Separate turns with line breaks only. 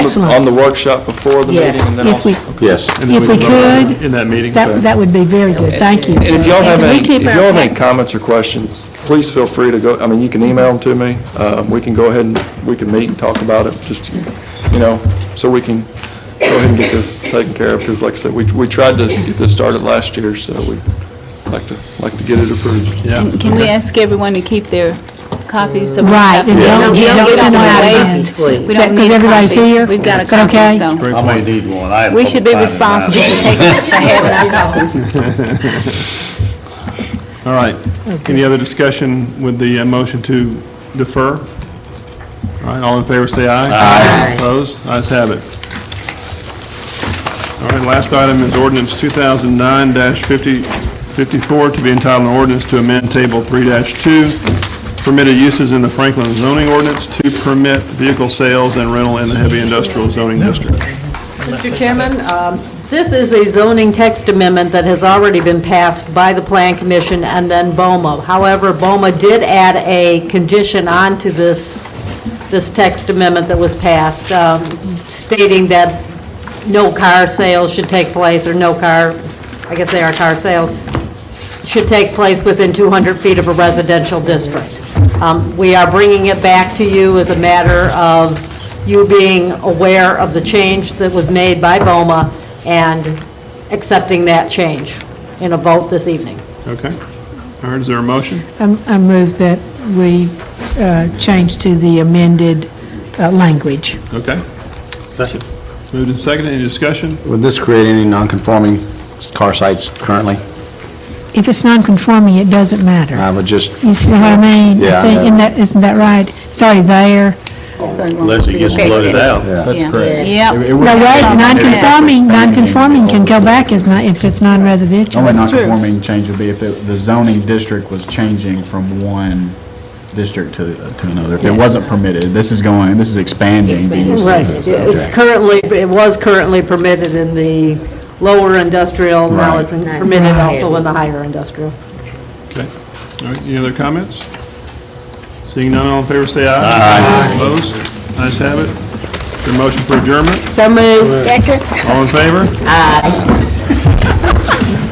on
Excellent.
the workshop before the meeting? and
Yes.
then
If we,
also-
Yes.
And then
If
can
we
vote
could,
In that meeting?
that, that would be very good, thank you.
And if y'all have
And
any,
we keep
if
our-
y'all have any comments or questions, please feel free to go, I mean, you can email them to me. Uh, We can go ahead and, we can meet and talk about it, just, you know, so we can go ahead and get this taken care of, because like I said, we we tried to get this started last year, so we'd like to, like to get it approved.
Yeah.
Can we ask everyone to keep their copies? so we
Right,
have to-
and
don't-
we
don't
get
send
some
out
waste.
copies, please.
We don't
Because
need a
everybody's
copy.
here?
We've got a
Is that okay?
copy, so
I may need one. I haven't
we should be
finding mine.
responsible for taking, for having our copies.
All right. Any other discussion with the uh, motion to defer? All right, all in favor, say aye. Aye. Opposed? Ayes have it. All right, last item is ordinance 2009-54, to be entitled an ordinance to amend Table 3-2, permitted uses in the Franklin zoning ordinance to permit vehicle sales and rental in the heavy industrial zoning district.
Mr. Chairman, um, this is a zoning text amendment that has already been passed by the Plan Commission and then BOMA. However, BOMA did add a condition onto this, this text amendment that was passed, um, stating that no car sales should take place, or no car, I guess they are car sales, should take place within 200 feet of a residential district. Um, We are bringing it back to you as a matter of you being aware of the change that was made by BOMA and accepting that change in a vote this evening.
Okay? All right, is there a motion?
I- I move that we uh, change to the amended uh, language.
Okay. Moved and seconded, any discussion?
Would this create any non-conforming car sites currently?
If it's non-conforming, it doesn't matter.
I would just,
You see what I mean?
Yeah,
I
I
think-
know.
Isn't that, isn't that right? It's already there.
Unless it gets
flooded out.
yeah.
correct. Yeah.
No, wait,
Yeah.
non-conforming, non-conforming can go back as not, if it's non-residential.
Only
true.
non-conforming change would be if the the zoning district was changing from one district to, to another. If it wasn't permitted, this is going, this is expanding. the uses.
Right. It's currently, it was currently permitted in the lower industrial, now it's in- permitted also in the higher industrial.
Okay. All right, any other comments? Seeing none, all in favor, say aye. Aye. Opposed? Ayes have it. Is there a motion for adjournment?
So moved.
All in favor? Aye.